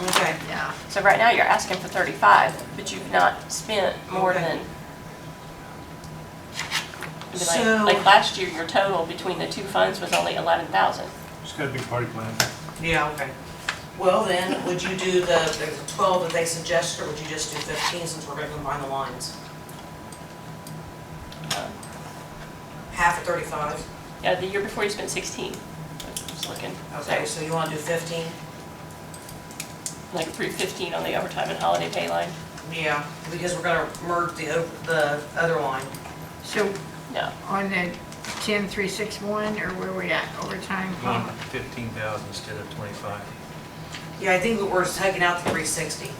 Okay, Yeah. So right now, you're asking for 35, but you've not spent more Okay. than... It'd be like- So- Like last year, your total between the two funds was only 11,000. It's got a big party plan. yeah, okay. Well then, would you do the, the twelve that they suggested, or would you just do fifteen since we're gonna combine the lines? Half of thirty-five? Uh, Yeah, the year before, you spent 16. I was looking. Okay, so you wanna do fifteen? Like 315 on the overtime and holiday pay line. Yeah, because we're gonna merge the, o- the other line. So No, on the 10361, or where we at, overtime? Going to 15,000 instead of 25. Yeah, I think we're taking out the three sixty.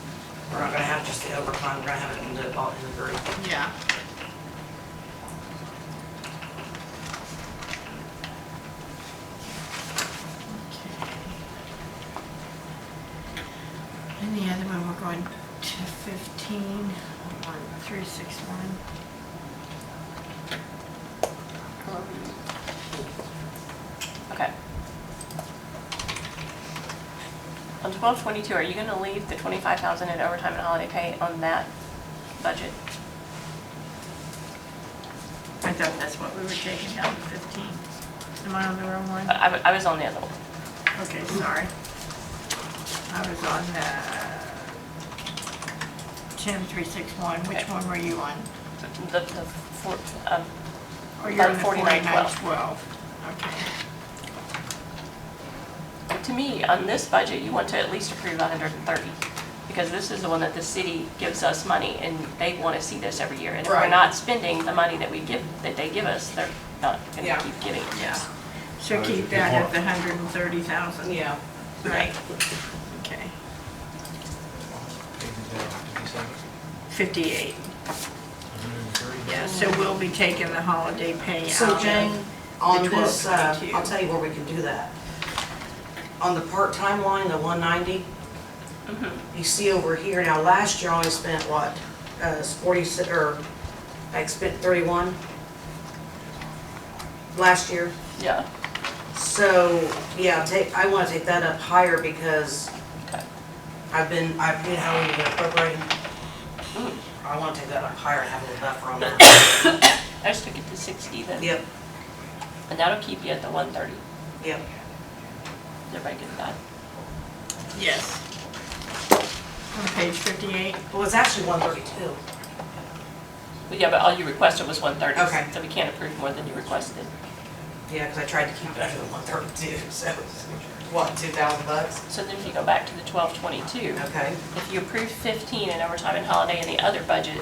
We're not gonna have just the overtime, we're gonna have it in the, all in the group. Yeah. And the other one, we're going to 15, on 361. okay. On 1222, are you going to leave the 25,000 in overtime and holiday pay on that budget? I thought that's what we were taking down to 15. Am I on the wrong one? I I was on the other one. Okay, sorry. I was on uh, the 10361. Which Okay. one were you on? The, the, four- um, Or you're on Like the 4912. 4912? Okay. to me, on this budget, you want to at least approve 130, because this is the one that the city gives us money, and they want to see this every year. And if we're Right. not spending the money that we give, that they give us, they're not going Yeah. to keep giving it to Yeah. us. So keep that at the 130,000? Yeah. Right. Okay. Yes. 58. Yeah, so we'll be taking the holiday pay out. So of- Jane, on the this, uh, 1222. I'll tell you where we can do that. On the part-time line, the 190, you see over here, now last year I only spent what? Uh, 46, or I spent 31 last year. Yeah, So, yeah, take, I want to take that up higher because Okay. I've been, I've been having to appropriate. I want to take that up higher and have a little buffer on that. I just took it to 60 then, Yep, and that'll keep you at the 130. yep. Did Everybody get that? Yes. On page 58? Well, it's actually 132. But yeah, but all you requested was 130. Okay. So we can't approve more than you requested. Yeah, because I tried to keep it under the one thirty-two, so, what, two thousand bucks? So then if you go back to the 1222, Okay, if you approve 15 in overtime and holiday in the other budget,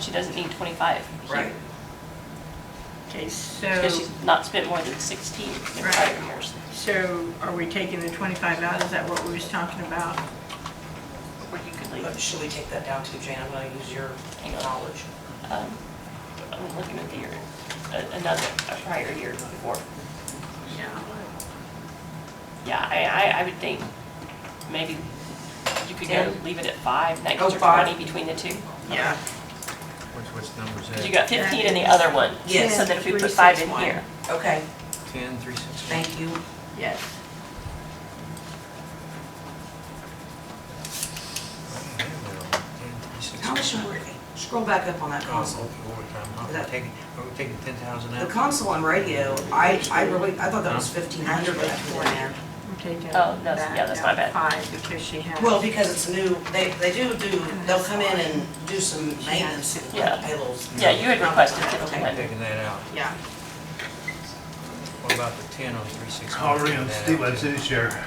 she doesn't need 25 here. right, Okay, Because so, she's not spent more than 16 in Right. prior years. so are we taking the 25 out? Is that what we was talking about? Where you could leave. But should we take that down too, Jane, I'm gonna use your Hang on. knowledge. Um, I'm looking at the year, a- another, a prior year before. Yeah. Yeah, I, I, I would think maybe you could go Ten? leave it at five, that Oh, gets you five. 20 between the two. Yeah. Which, which number is that? Because you got 15 in the other one. Yes. So then if we Three, put five six, in one. here, Oh, Okay, 10, 360. thank you. Yes. How much more, scroll back up on that console. Oh, We're taking, we're taking 10,000 The out. console and radio, I, I really, I thought that was fifteen hundred, but that's more in there. We're taking Oh, no, that's- yeah, that that's down my to Five, because she has. Well, because it's new, they, they do do, they'll come in and do some maintenance and Yeah. payrolls. yeah, you had requested Okay. 15. Taking that out. Yeah. What about the 10 on 360? How are you Taking on that state out. lead city share?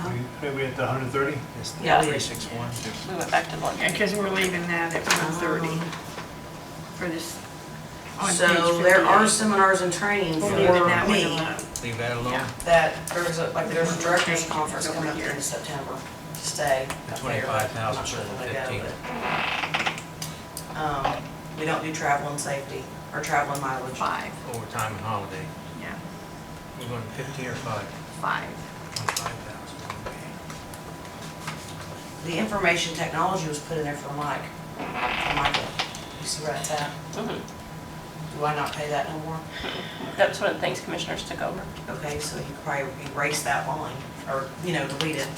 Huh? We, we at the hundred and thirty? It's the Yeah. 361. We went back to the one. Yeah, because we're leaving that at 130 Um, for this, on page 58. So there are seminars and trainings We're for leaving that one me. alone. Leave that alone. Yeah. that there's a, like, there's a director's conference coming up in September to stay. The 25,000 I'm not sure for the when they go, 15. but, Um, we don't do travel and safety, or travel and mileage. Five, Overtime and holiday. yeah, We're going 15 or 5? five. 5,000. okay. The information technology was put in there for Mike, for Michael. You see where that's at? Mhm. Do I not pay that no more? That's one of the things commissioners took over. Okay, so you could probably erase that line, or, you know, delete it.